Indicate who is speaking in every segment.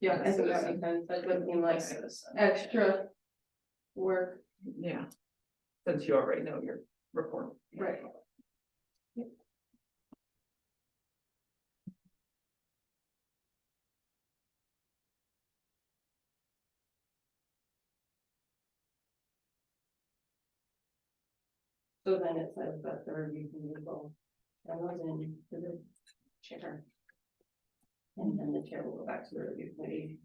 Speaker 1: Yeah, I think that makes sense, that would seem like extra work,
Speaker 2: Yeah. Since you already know your report.
Speaker 1: right? So then it says that the review can go, that was in to the chair. And then the chair will go back to the review committee.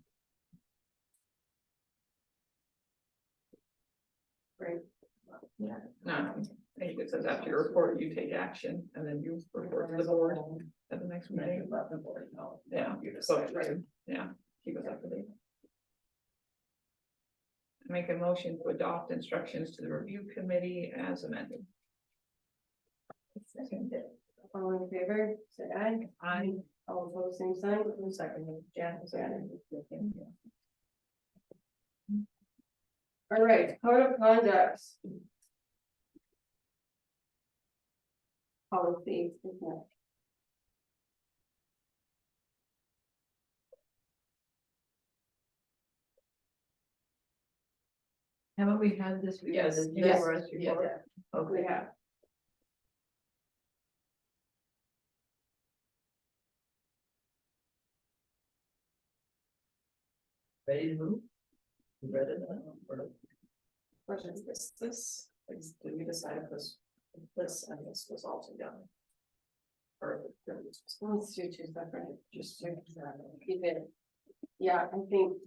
Speaker 2: No, I think it says after your report, you take action and then you report to the board Oh, at the next
Speaker 1: And
Speaker 2: meeting.
Speaker 1: then let the board know.
Speaker 2: Yeah,
Speaker 1: You just
Speaker 2: so,
Speaker 1: said, right.
Speaker 2: yeah, keep us up to date. Make a motion to adopt instructions to the review committee as amended.
Speaker 1: All in favor, say aye.
Speaker 2: Aye.
Speaker 1: All opposed, same sign. Who's second? Jan, Jan. All right, code of conduct. Policy. isn't it?
Speaker 3: Haven't we had this? before?
Speaker 2: Yes,
Speaker 3: This is
Speaker 2: yes,
Speaker 3: for us
Speaker 2: yeah,
Speaker 3: before?
Speaker 1: We have.
Speaker 4: Ready to move? You read it now? or-
Speaker 2: Question is this, this, is, did we decide if this, if this and this was all together? Or if there was
Speaker 1: So Let's do two separate, just to keep it. Yeah, I think.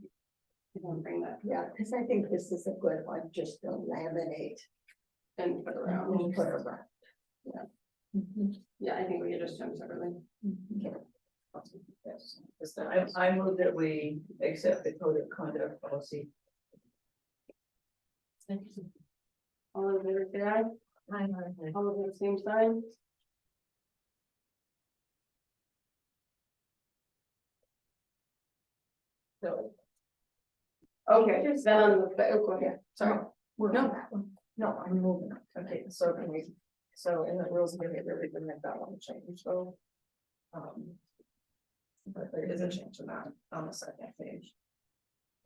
Speaker 1: I can bring that
Speaker 5: Yeah, because I think this is a good one, just to laminate
Speaker 1: and put around.
Speaker 5: and put around.
Speaker 1: Yeah, I think we could just do them separately.
Speaker 4: Yes. Yes, I, I move that we accept the code of conduct policy.
Speaker 1: All in favor, say aye. All of the same sign.
Speaker 2: So.
Speaker 1: Okay, then on the, oh, go ahead, sorry.
Speaker 4: We're
Speaker 1: No.
Speaker 4: on that one. No, I'm moving on. Okay, so can we, so in the rules, maybe we can make that one change, so. Um. But there is a change to that on the second page.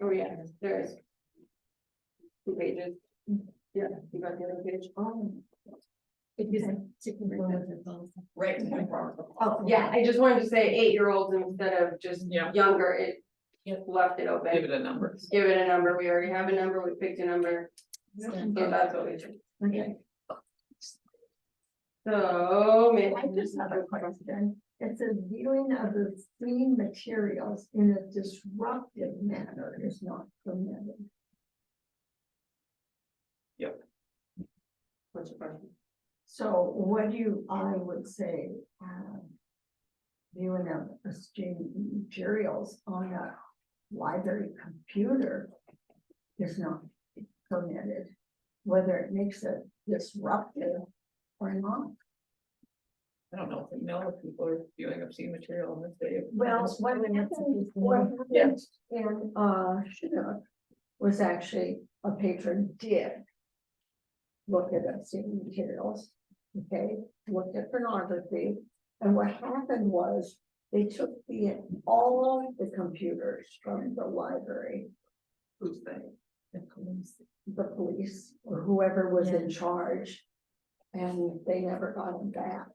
Speaker 1: Oh, yeah, there is. Two pages. Yeah, you got the other page.
Speaker 4: Oh,
Speaker 5: It isn't particularly with the policy.
Speaker 4: right.
Speaker 5: Oh,
Speaker 1: Yeah, I just wanted to say eight-year-olds instead of just
Speaker 2: Yeah.
Speaker 1: younger, it
Speaker 4: Yeah.
Speaker 1: left it
Speaker 2: Give
Speaker 1: open.
Speaker 2: it a number.
Speaker 1: Give it a number, we already have a number, we picked a number, so that's what we did.
Speaker 5: Okay.
Speaker 1: So, may.
Speaker 5: I just have a question. It says viewing of the seen materials in a disruptive manner is not permitted.
Speaker 1: What's your question?
Speaker 5: So what do you, I would say, um, viewing of the student materials on a library computer is not permitted, whether it makes it disruptive or not.
Speaker 2: I don't know if we know if people are viewing obscene material on this day.
Speaker 5: Well, what happened, what happened in, uh, Chinook was actually a patron did look at obscene materials, okay, looked at pornography. And what happened was they took the, all of the computers from the library,
Speaker 2: Who's they?
Speaker 5: the police, or whoever was in charge. And they never got them back.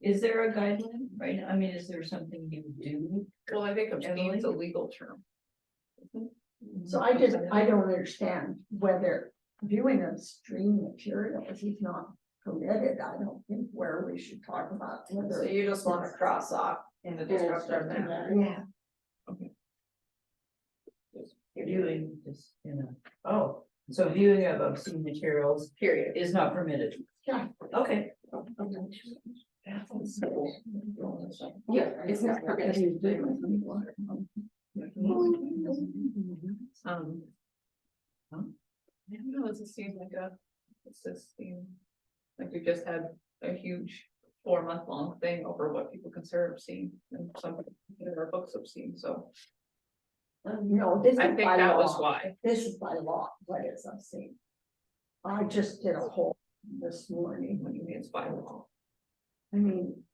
Speaker 3: Is there a guideline, right? I mean, is there something you do?
Speaker 2: Well, I think obscene is a
Speaker 3: Emily?
Speaker 2: legal term.
Speaker 5: So I just, I don't understand whether viewing of stream materials is not permitted, I don't think where we should talk about whether.
Speaker 4: you just
Speaker 5: wanna
Speaker 4: cross off in the
Speaker 1: disruptive manner.
Speaker 5: Yeah,
Speaker 4: Viewing is, you know, oh, so viewing of obscene materials
Speaker 1: Period.
Speaker 4: is not permitted.
Speaker 5: Yeah.
Speaker 4: Okay.
Speaker 1: Yeah, it's not permitted.
Speaker 4: Um,
Speaker 2: I don't know, does it seem like a, it's just seem, like we just had a huge four month long thing over what people consider obscene and some, there are books obscene, so.
Speaker 5: No, this is
Speaker 2: I think
Speaker 5: by
Speaker 2: that was
Speaker 5: law,
Speaker 2: why,
Speaker 5: this is by law, what is obscene. I just did a whole this morning,
Speaker 2: when you mean it's by law.
Speaker 5: I mean,